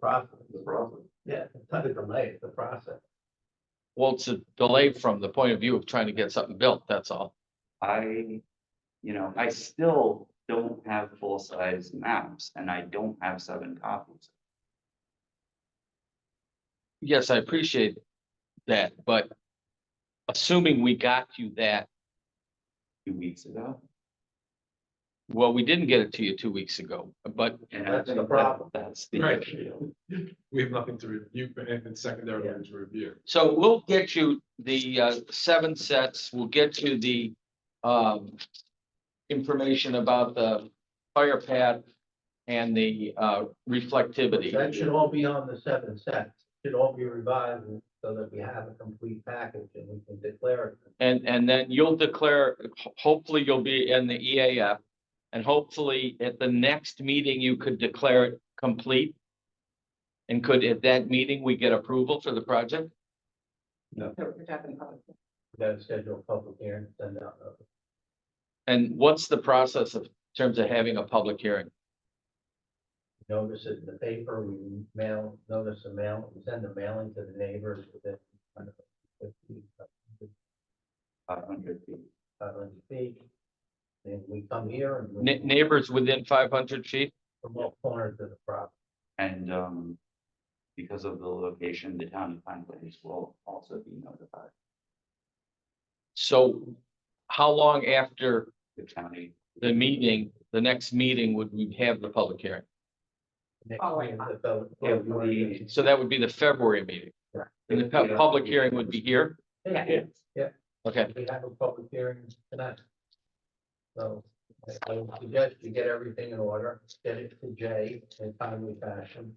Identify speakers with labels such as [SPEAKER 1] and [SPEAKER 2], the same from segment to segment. [SPEAKER 1] process.
[SPEAKER 2] the problem.
[SPEAKER 1] Yeah, it's not a delay, it's a process.
[SPEAKER 3] Well, it's a delay from the point of view of trying to get something built, that's all.
[SPEAKER 2] I, you know, I still don't have full-size maps and I don't have seven copies.
[SPEAKER 3] Yes, I appreciate that, but assuming we got you that,
[SPEAKER 2] Two weeks ago.
[SPEAKER 3] well, we didn't get it to you two weeks ago, but
[SPEAKER 2] and I
[SPEAKER 1] That's the
[SPEAKER 2] think that-
[SPEAKER 1] problem.
[SPEAKER 2] That's the
[SPEAKER 4] Right.
[SPEAKER 2] issue.
[SPEAKER 4] We have nothing to review, anything secondary to review.
[SPEAKER 3] So we'll get you the uh seven sets, we'll get you the um. Information about the fire pad and the uh
[SPEAKER 1] That should
[SPEAKER 3] reflectivity.
[SPEAKER 1] all be on the seven sets, should all be revised so that we have a complete package and we can declare it.
[SPEAKER 3] And and then you'll declare, ho- hopefully you'll be in the EAF. And hopefully at the next meeting, you could declare it complete. And could at that meeting, we get approval for the project?
[SPEAKER 1] We gotta schedule a public hearing, send out notice.
[SPEAKER 3] And what's the process of in terms of having a public hearing?
[SPEAKER 1] notice it in the paper, we mail, notice the mail, we send the mailing to the neighbors within. I don't know, 50,
[SPEAKER 2] Five hundred feet.
[SPEAKER 1] 500 feet. Then we come here and
[SPEAKER 3] Ne-
[SPEAKER 1] we
[SPEAKER 3] Neighbors within five hundred feet?
[SPEAKER 1] from all corners of the property.
[SPEAKER 2] And, um, because of the location, the town of Pine Place will also be notified,
[SPEAKER 3] So how long after
[SPEAKER 2] the county.
[SPEAKER 3] the meeting, the next meeting would we have the public hearing?
[SPEAKER 1] Next
[SPEAKER 5] Oh,
[SPEAKER 1] meeting,
[SPEAKER 5] yeah.
[SPEAKER 1] the fellow-
[SPEAKER 2] Yeah, we-
[SPEAKER 3] So that would be the February meeting.
[SPEAKER 1] Right.
[SPEAKER 3] And the pub- public hearing would be here?
[SPEAKER 1] Yeah,
[SPEAKER 3] Okay,
[SPEAKER 1] We have a public hearing tonight. So I I would suggest you get everything in order, get it to Jay in timely fashion.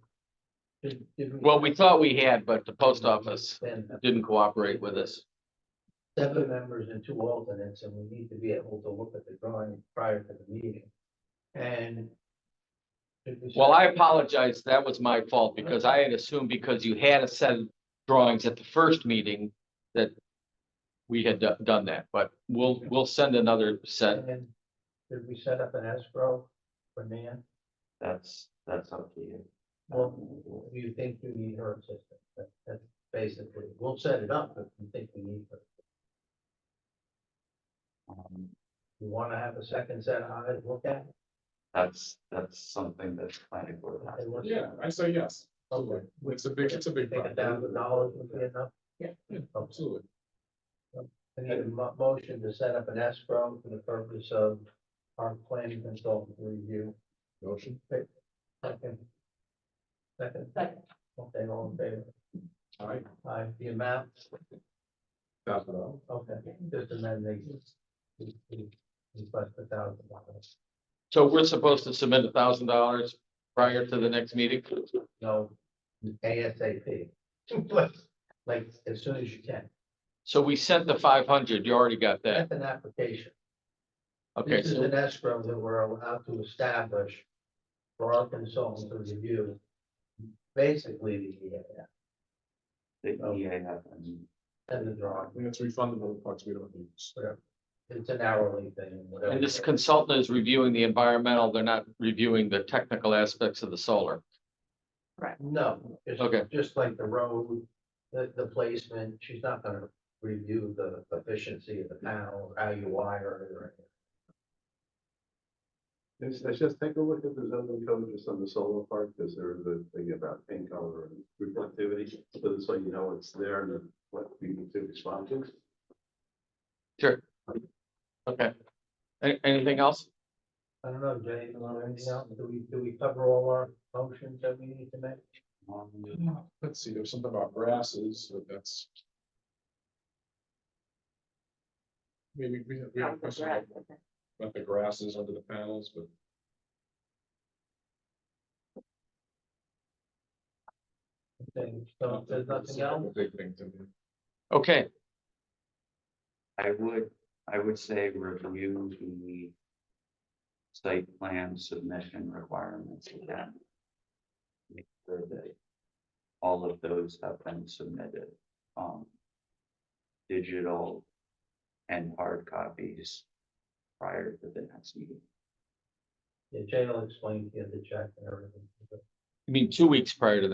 [SPEAKER 1] Did- did
[SPEAKER 3] well, we thought we had, but the post office
[SPEAKER 1] Then
[SPEAKER 3] didn't cooperate with us.
[SPEAKER 1] seven members and two alternates, and we need to be able to look at the drawing prior to the meeting. And. if we
[SPEAKER 3] Well, I
[SPEAKER 1] said-
[SPEAKER 3] apologize. That was my fault because I had assumed because you had a set of drawings at the first meeting that we had do- done that, but we'll, we'll send another set.
[SPEAKER 1] And then, did we set up an escrow for Nan?
[SPEAKER 2] That's, that's up to you.
[SPEAKER 1] Well- Do you think you need her assistance? That- That's basically, we'll set it up if you think we need her.
[SPEAKER 2] Um,
[SPEAKER 1] You wanna have a second set of eyes, look at it.
[SPEAKER 2] That's, that's something that's planning board has.
[SPEAKER 1] and we'll-
[SPEAKER 4] Yeah, I say yes.
[SPEAKER 1] Okay.
[SPEAKER 4] It's a big, it's a big.
[SPEAKER 1] Think a thousand dollars would be enough?
[SPEAKER 5] Yeah.
[SPEAKER 4] Yeah.
[SPEAKER 1] Okay.
[SPEAKER 4] Absolutely.
[SPEAKER 1] I need a mo- motion to set up an escrow for the purpose of our planning consultant review.
[SPEAKER 4] Motion.
[SPEAKER 1] Second. Second,
[SPEAKER 5] Second.
[SPEAKER 1] okay, all in favor?
[SPEAKER 4] All right.
[SPEAKER 1] Aye, the amount,
[SPEAKER 4] Thousand dollars.
[SPEAKER 1] okay, just amend the. Request a thousand dollars.
[SPEAKER 3] So we're supposed to submit a thousand dollars prior to the next meeting?
[SPEAKER 1] No, ASAP. Like- Like, as soon as you can.
[SPEAKER 3] So we sent the five hundred, you already got that,
[SPEAKER 1] That's an application.
[SPEAKER 3] okay,
[SPEAKER 1] This is
[SPEAKER 3] so,
[SPEAKER 1] an escrow that we're allowed to establish for our consultant to review. Basically, the, EAF
[SPEAKER 2] The E EAF and
[SPEAKER 1] and the
[SPEAKER 4] I
[SPEAKER 1] drawing,
[SPEAKER 4] think it's refundable the parts we don't use.
[SPEAKER 1] it's an hourly thing, whatever.
[SPEAKER 3] and this consultant is reviewing the environmental, they're not reviewing the technical aspects of the solar.
[SPEAKER 1] No, just,
[SPEAKER 3] Okay.
[SPEAKER 1] just like the road, the, the placement, she's not gonna review the efficiency of the panel, or how you wire it or anything.
[SPEAKER 6] Let's, let's just take a look at the zoning code just on the solar park, because there is a thing about paint color and reflectivity, so so you know it's there and what we need to respond to.
[SPEAKER 3] Okay, An- anything else?
[SPEAKER 1] I don't know, Jay, you want anything else? Do we, do we cover all our motions that we need to make?
[SPEAKER 2] um,
[SPEAKER 4] Let's see, there's something about grasses, but that's. Maybe we have, we have a question about- about the grasses under the panels, but.
[SPEAKER 1] Thing, so if there's nothing else,
[SPEAKER 4] Big thing to me.
[SPEAKER 3] Okay,
[SPEAKER 2] I would, I would say review the site plan submission requirements again. Make sure that all of those have been submitted, um, digital and hard copies prior to the next meeting.
[SPEAKER 1] yeah, Jay will explain to you the check and everything.
[SPEAKER 3] I mean, two weeks prior to that.